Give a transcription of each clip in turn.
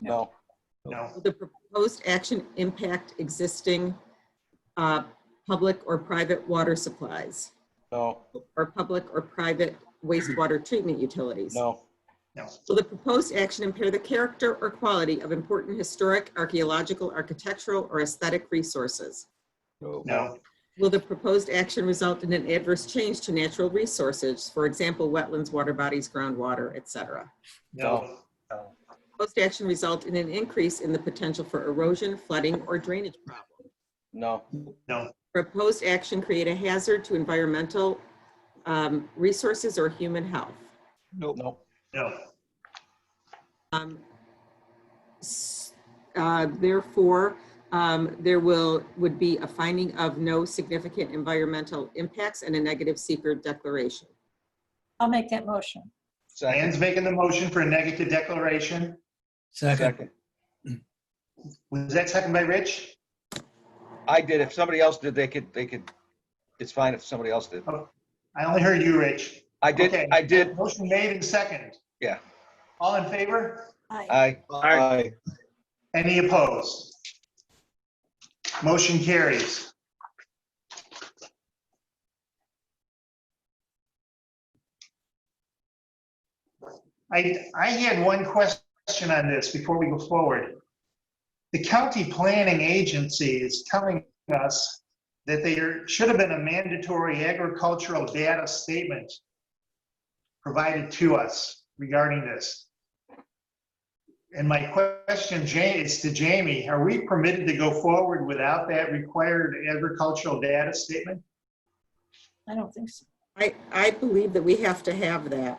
No, No. Will the proposed action impact existing uh, public or private water supplies? no, Or public or private wastewater treatment utilities? no, Will the proposed action impair the character or quality of important historic, archaeological, architectural, or aesthetic resources? No, Will the proposed action result in an adverse change to natural resources, for example, wetlands, water bodies, groundwater, et cetera? no, Proposed action result in an increase in the potential for erosion, flooding, or drainage problems? no, no, Proposed action create a hazard to environmental um, resources or human health? no, no, Um, s- uh, Therefore, um, there will, would be a finding of no significant environmental impacts and a negative seeker declaration. I'll make that motion. second, Dan's making the motion for a negative declaration. Second, second. Was that second by Rich? I did. If somebody else did, they could, they could, it's fine if somebody else did. I only heard you, Rich. I did, Okay. I did, Motion made and second. Yeah. All in favor? Uh, Aye. I, aye, Any opposed? Motion carries. I, I had one question on this before we go forward. The county planning agency is telling us that there should have been a mandatory agricultural data statement provided to us regarding this. And my question, Jay, is to Jamie, are we permitted to go forward without that required agricultural data statement? I don't think so. I, I believe that we have to have that.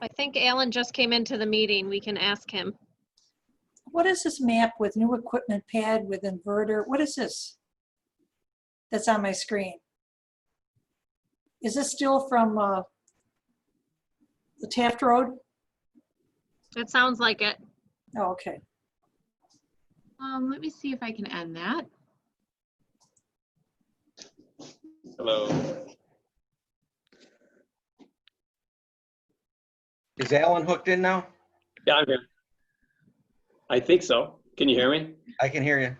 I think Alan just came into the meeting. We can ask him. What is this map with new equipment pad with inverter? What is this? That's on my screen. Is this still from uh, the Taft Road? That sounds like it. Oh, okay. Um, let me see if I can end that. is Alan hooked in now? Yeah, I'm here. I think so. Can you hear me? I can hear you.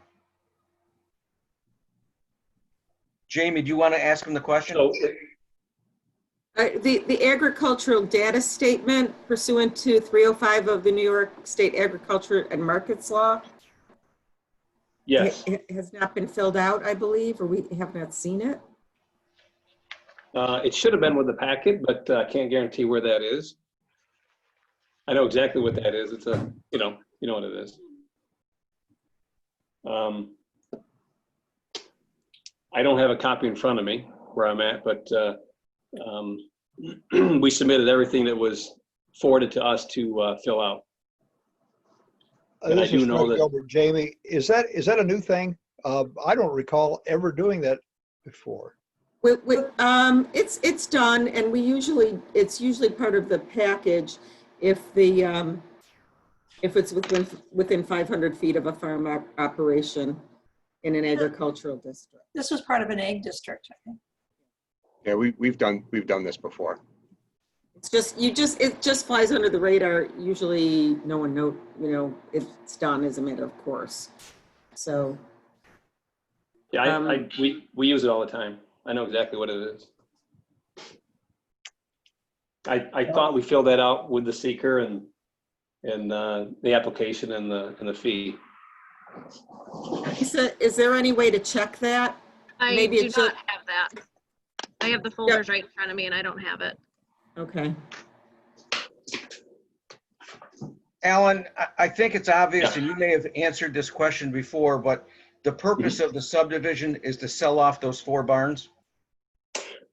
Jamie, do you want to ask him the question? So, Uh, The, the agricultural data statement pursuant to 305 of the New York State Agriculture and Markets Law yes, ha- has not been filled out, I believe, or we have not seen it. uh, it should have been with the packet, but uh, I can't guarantee where that is. I know exactly what that is. It's a, you know, you know what it is. Um, I don't have a copy in front of me where I'm at, but uh, um, we submitted everything that was forwarded to us to uh, fill out. And I This do is know Frank that- Gilbert. Jamie, is that, is that a new thing? Uh, I don't recall ever doing that before. We, we, um, it's, it's done, and we usually, it's usually part of the package if the, um, if it's within, within 500 feet of a farm op- operation in an agricultural district. This was part of an egg district, I think. Yeah, we, we've done, we've done this before. It's just, you just, it just flies under the radar. Usually, no one know, you know, it's done as a matter of course. So, Yeah, Um, I, I, we, we use it all the time. I know exactly what it is. I, I thought we filled that out with the seeker and, and, uh, the application and the, and the fee. Lisa, is there any way to check that? I Maybe do it's a- not have that. I have the folders right in front of me and I don't have it. Okay. Alan, I, I think it's obvious, and you may have answered this question before, but the purpose of the subdivision is to sell off those four barns?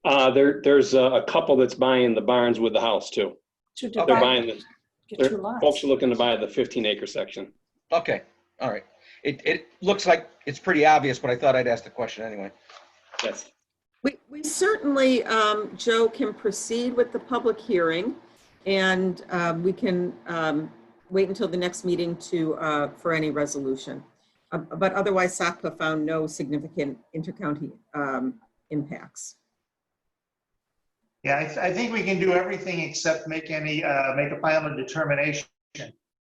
Uh, there, there's a a couple that's buying the barns with the house too. Two They're divided, buying, the get two they're, folks lots. are looking to buy the fifteen acre section. Okay, all right. It, it looks like it's pretty obvious, but I thought I'd ask the question anyway. Yes. We, we certainly, um, Joe, can proceed with the public hearing, and um, we can um, wait until the next meeting to, uh, for any resolution. Uh, But otherwise, SACPA found no significant intercounty um, impacts. Yeah, I, I think we can do everything except make any, uh, make a final determination.